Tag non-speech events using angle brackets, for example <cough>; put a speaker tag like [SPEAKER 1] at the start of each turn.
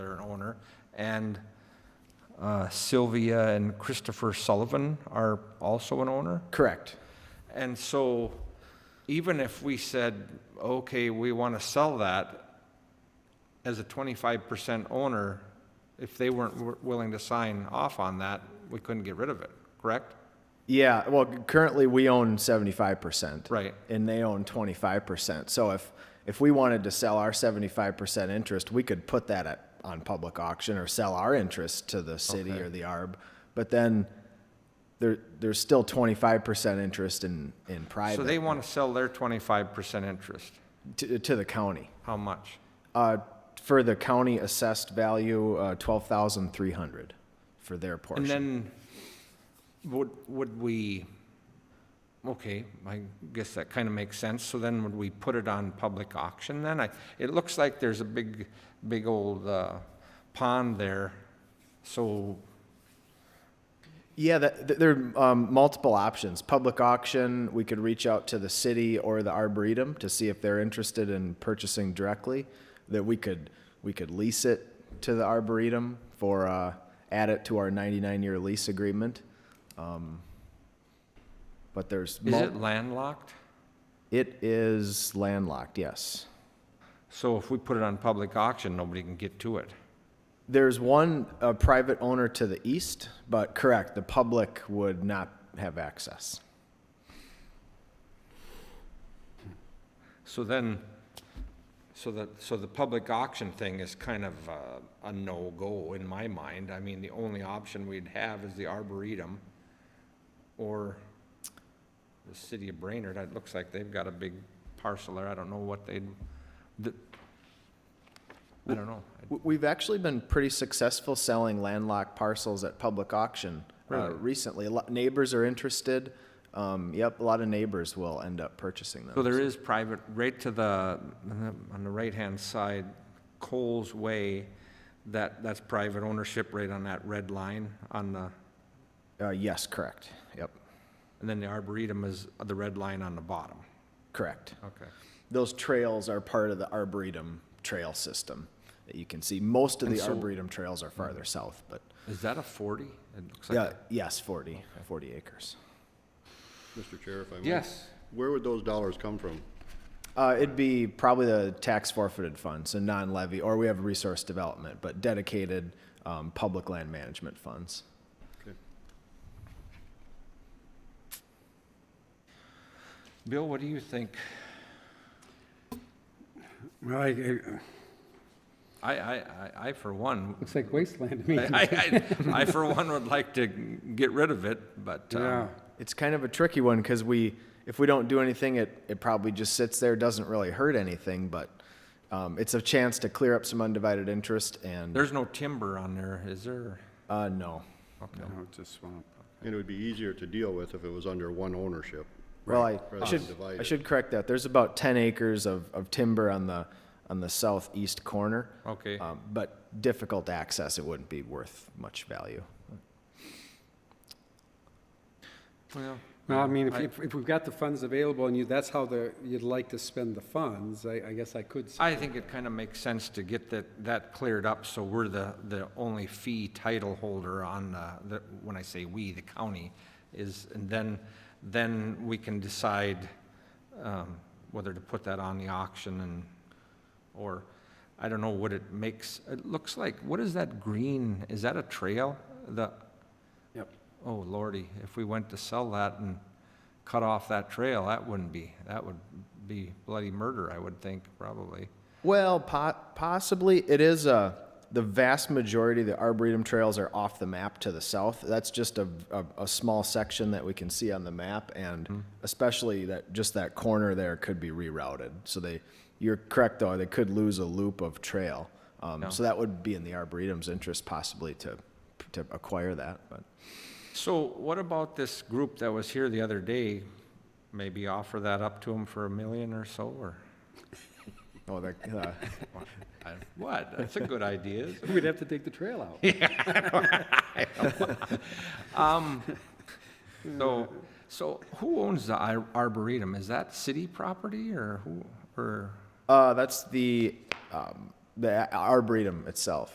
[SPEAKER 1] Center, and uh, Sylvia and Christopher Sullivan are also an owner.
[SPEAKER 2] Correct.
[SPEAKER 1] And so even if we said, okay, we want to sell that as a 25% owner, if they weren't wi- willing to sign off on that, we couldn't get rid of it, correct?
[SPEAKER 2] Yeah, well, currently we own seventy-five percent.
[SPEAKER 1] Right.
[SPEAKER 2] And they own twenty-five percent. So if, if we wanted to sell our seventy-five percent interest, we could put that at, on public auction or sell our interest to the city or the ARB. But then there, there's still twenty-five percent interest in, in
[SPEAKER 1] So they
[SPEAKER 2] private,
[SPEAKER 1] want to sell their 25% interest.
[SPEAKER 2] to, to the county.
[SPEAKER 1] How much?
[SPEAKER 2] Uh, for the county assessed value, uh, twelve thousand three hundred for their
[SPEAKER 1] And
[SPEAKER 2] portion.
[SPEAKER 1] then would, would we, okay, I guess that kind of makes sense. So then would we put it on public auction then? I, it looks like there's a big, big old uh, pond there. So
[SPEAKER 2] Yeah, that, th- there are um, multiple options. Public auction, we could reach out to the city or the arboretum to see if they're interested in purchasing directly. That we could we could lease it to the arboretum for uh, add it to our 99 year lease agreement. Um, but there's
[SPEAKER 1] is
[SPEAKER 2] mul-
[SPEAKER 1] it landlocked?
[SPEAKER 2] it is landlocked. Yes.
[SPEAKER 1] So if we put it on public auction, nobody can get to it.
[SPEAKER 2] There's one a private owner to the east, but correct, the public would not have access.
[SPEAKER 1] So then, so that, so the public auction thing is kind of uh, a no-go in my mind. I mean, the only option we'd have is the Arboretum or the city of Brainerd. It looks like they've got a big parcel there. I don't know what they'd, the, I don't know.
[SPEAKER 2] W- We've actually been pretty successful selling landlocked parcels at public auction uh,
[SPEAKER 1] Really?
[SPEAKER 2] recently. Lo- Neighbors are interested. Um, Yep, a lot of neighbors will end up purchasing them.
[SPEAKER 1] So there is private, right to the, on the right-hand side, Coles Way, that, that's private ownership right on that red line on the,
[SPEAKER 2] Uh, Yes, correct. Yep,
[SPEAKER 1] and then the Arboretum is the red line on the bottom.
[SPEAKER 2] correct.
[SPEAKER 1] Okay.
[SPEAKER 2] Those trails are part of the Arboretum trail system that you can see. Most of
[SPEAKER 1] And
[SPEAKER 2] the
[SPEAKER 1] so- Mm.
[SPEAKER 2] Arboretum trails are farther south, but,
[SPEAKER 1] Is that a 40? It looks like
[SPEAKER 2] yeah,
[SPEAKER 1] a-
[SPEAKER 2] yes, 40, 40 acres.
[SPEAKER 3] Mr. Chair, if I may.
[SPEAKER 1] Yes,
[SPEAKER 3] Where would those dollars come from?
[SPEAKER 2] Uh, it'd be probably the tax forfeited fund, so non-levy, or we have resource development, but dedicated, um, public land management funds.
[SPEAKER 1] Bill, what do you think?
[SPEAKER 4] Well, I- it
[SPEAKER 1] I, I, I- I for one, <laughs>
[SPEAKER 4] looks like wasteland to
[SPEAKER 1] I,
[SPEAKER 4] me.
[SPEAKER 1] I, I for one would like to get rid of it, but,
[SPEAKER 4] Yeah,
[SPEAKER 1] um,
[SPEAKER 2] It's kind of a tricky one because we, if we don't do anything, it, it probably just sits there, doesn't really hurt anything, but um, it's a chance to clear up some undivided interest and,
[SPEAKER 1] there's no timber on there, is there?
[SPEAKER 2] uh, no.
[SPEAKER 1] Okay.
[SPEAKER 4] no, it's a swamp.
[SPEAKER 3] And it would be easier to deal with if it was under one ownership.
[SPEAKER 2] Well, I- I
[SPEAKER 3] Rather
[SPEAKER 2] should,
[SPEAKER 3] than divide
[SPEAKER 2] I
[SPEAKER 3] it.
[SPEAKER 2] should correct that. There's about 10 acres of, of timber on the, on the southeast corner.
[SPEAKER 1] Okay.
[SPEAKER 2] Um, But difficult access, it wouldn't be worth much value.
[SPEAKER 1] Well,
[SPEAKER 4] Well, I mean, if,
[SPEAKER 1] I-
[SPEAKER 4] if if we've got the funds available and you, that's how the, you'd like to spend the funds, I, I guess I could. s-
[SPEAKER 1] I think it kind of makes sense to get that, that cleared up, so we're the, the only fee title holder on the, the- when I say we, the county, is, and then, then we can decide um, whether to put that on the auction and, or, I don't know what it makes, it looks like, what is that green, is that a trail? The,
[SPEAKER 4] Yep.
[SPEAKER 1] oh lordy, if we went to sell that and cut off that trail, that wouldn't be, that would be bloody murder, I would think, probably.
[SPEAKER 2] Well, po- possibly it is a. The vast majority of the arboretum trails are off the map to the south. That's just a, a, a small section that we can see on the map, and especially that just that corner there could be rerouted. So they, you're correct though, they could lose a loop of trail. Um, So that would be in the arboretum's interest possibly to to acquire that. But
[SPEAKER 1] So what about this group that was here the other day? Maybe offer that up to them for a million or so, or
[SPEAKER 2] oh, that, uh,
[SPEAKER 1] I- what? That's a good idea. isn't
[SPEAKER 4] We'd have to take the trail out.
[SPEAKER 1] it? Um, So, so who owns the ar- arboretum? Is that city property or who, or,
[SPEAKER 2] uh, that's the um, the arboretum itself.